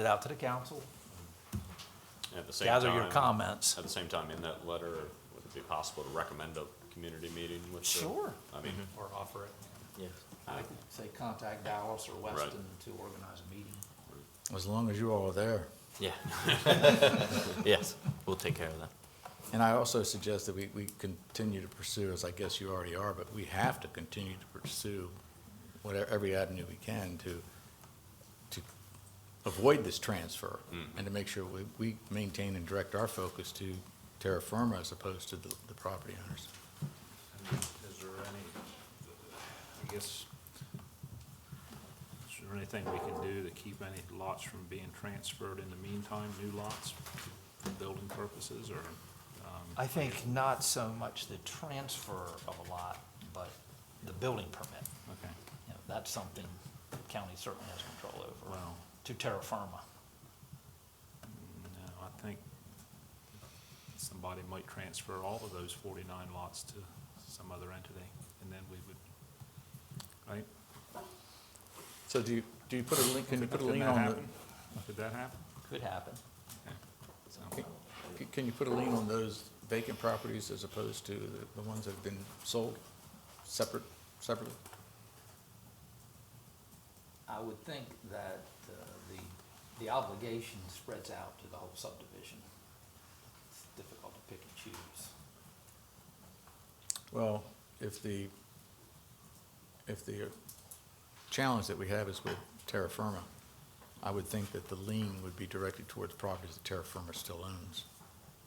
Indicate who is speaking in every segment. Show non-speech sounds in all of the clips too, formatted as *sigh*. Speaker 1: it out to the council,
Speaker 2: At the same time.
Speaker 1: gather your comments.
Speaker 2: At the same time, in that letter, would it be possible to recommend a community meeting with the?
Speaker 1: Sure.
Speaker 2: I mean,
Speaker 1: Or offer it,
Speaker 3: Yes.
Speaker 1: I could say contact Dallas or Weston to organize a meeting.
Speaker 4: As long as you all are there.
Speaker 3: Yeah. *laughs* Yes, we'll take care of that.
Speaker 4: And I also suggest that we, we continue to pursue, as I guess you already are, but we have to continue to pursue whatever, every avenue we can to, to avoid this transfer and to make sure we, we maintain and direct our focus to terra firma as opposed to the, the property owners.
Speaker 5: Is there any, I guess, is there anything we can do to keep any lots from being transferred in the meantime, new lots for building purposes or? um,
Speaker 1: I think not so much the transfer of a lot, but the building permit.
Speaker 5: Okay,
Speaker 1: You know, that's something the county certainly has control over,
Speaker 5: well,
Speaker 1: to terra firma.
Speaker 5: no, I think somebody might transfer all of those forty-nine lots to some other entity and then we would, right?
Speaker 4: So do you, do you put a lien, can you put a
Speaker 5: Could
Speaker 4: lien
Speaker 5: that
Speaker 4: on
Speaker 5: happen? Could that happen?
Speaker 1: Could happen.
Speaker 5: Okay. So-
Speaker 4: the, can- can you put a lien on those vacant properties as opposed to the, the ones that have been sold separate, separately?
Speaker 1: I would think that uh, the, the obligation spreads out to the whole subdivision. It's difficult to pick and choose.
Speaker 4: Well, if the, if the challenge that we have is with terra firma, I would think that the lien would be directed towards properties that terra firma still owns,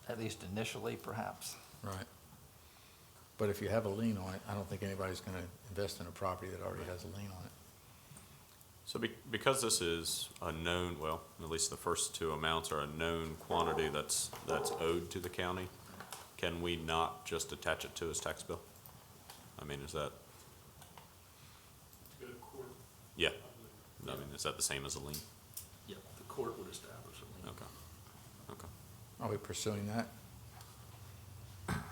Speaker 1: At least initially, perhaps.
Speaker 4: right? But if you have a lien on it, I don't think anybody's gonna invest in a property that already has a lien on it.
Speaker 2: so be, because this is a known, well, at least the first two amounts are a known quantity that's, that's owed to the county, can we not just attach it to his tax bill? I mean, is that? Yeah, I mean, is that the same as a lien?
Speaker 6: Yep, the court would establish a lien.
Speaker 2: Okay, okay.
Speaker 4: Are we pursuing that?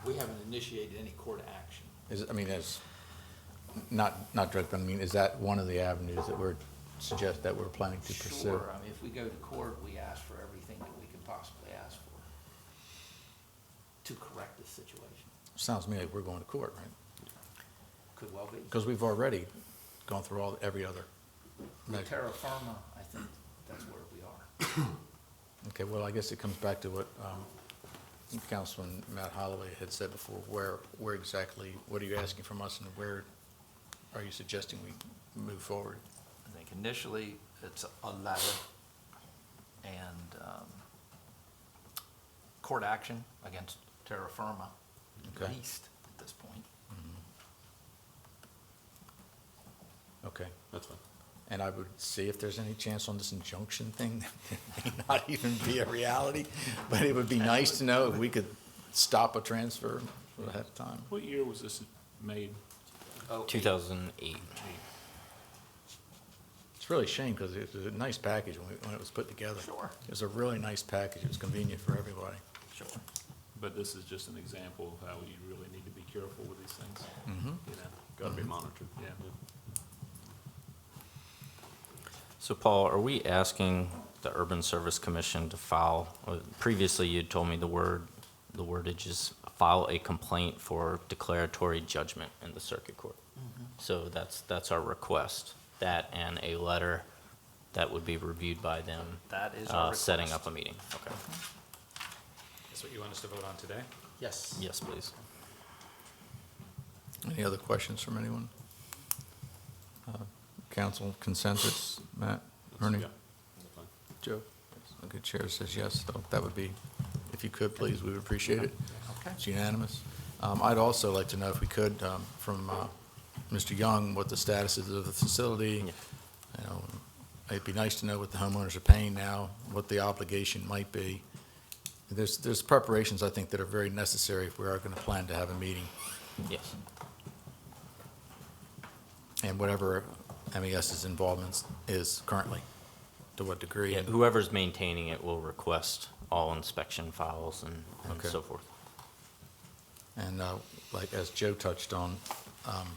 Speaker 6: We haven't initiated any court action.
Speaker 4: Is, it- I mean, as, not, not direct, but I mean, is that one of the avenues that we're, suggest, that we're planning to pursue?
Speaker 1: Sure, I mean, if we go to court, we ask for everything that we can possibly ask for to correct this situation.
Speaker 4: Sounds to me like we're going to court, right?
Speaker 1: Could well be.
Speaker 4: Because we've already gone through all, every other
Speaker 1: With
Speaker 4: measure.
Speaker 1: terra firma, I think that's where we are.
Speaker 4: Okay, well, I guess it comes back to what um, Councilman Matt Holloway had said before, where, where exactly, what are you asking from us and where are you suggesting we move forward?
Speaker 1: I think initially, it's a letter and um, court action against terra firma, at
Speaker 4: Okay.
Speaker 1: least at this point.
Speaker 4: Okay,
Speaker 2: That's fine.
Speaker 4: and I would see if there's any chance on this injunction thing, *laughs* that may not even be a reality, but it would be nice to know if we could stop a transfer ahead of time.
Speaker 5: What year was this made?
Speaker 1: Oh,
Speaker 3: Two thousand eight.
Speaker 4: It's really a shame because it was a nice package when, we- when it was put together.
Speaker 1: Sure.
Speaker 4: It was a really nice package. It was convenient for everybody.
Speaker 1: sure.
Speaker 5: But this is just an example of how you really need to be careful with these things. You know, Mm-hmm.
Speaker 2: Gotta be monitored.
Speaker 5: yeah.
Speaker 3: So Paul, are we asking the Urban Service Commission to file, uh, previously you told me the word, the wordage is file a complaint for declaratory judgment in the circuit court.
Speaker 1: Mm-hmm.
Speaker 3: So that's, that's our request, that and a letter that would be reviewed by them,
Speaker 1: That is our
Speaker 3: uh, setting
Speaker 1: request. Mm-hmm.
Speaker 3: up a meeting. Okay,
Speaker 5: That's what you want us to vote on today?
Speaker 1: Yes.
Speaker 3: yes, please.
Speaker 4: Any other questions from anyone? Uh, Council consensus, Matt, Ernie,
Speaker 2: Yeah, that's fine.
Speaker 4: Joe? Okay, chair says yes, so that would be, if you could, please, we would appreciate it.
Speaker 1: Okay.
Speaker 4: It's unanimous. Um, I'd also like to know if we could, um, from, uh, Mr. Young, what the status is of the facility. You know, it'd be nice to know what the homeowners are paying now, what the obligation might be. There's, there's preparations, I think, that are very necessary if we are gonna plan to have a meeting.
Speaker 3: Yes.
Speaker 4: and whatever MES's involvement is currently, to what degree.
Speaker 3: Yeah, whoever's maintaining it will request all inspection files and, and
Speaker 4: Okay.
Speaker 3: so forth.
Speaker 4: And uh, like, as Joe touched on, um,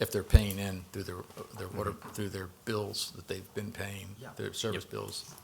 Speaker 4: if they're paying in through their, their water, through their bills that they've been paying,
Speaker 1: Yeah.
Speaker 4: their service
Speaker 3: Mm-hmm. Yep.
Speaker 4: bills,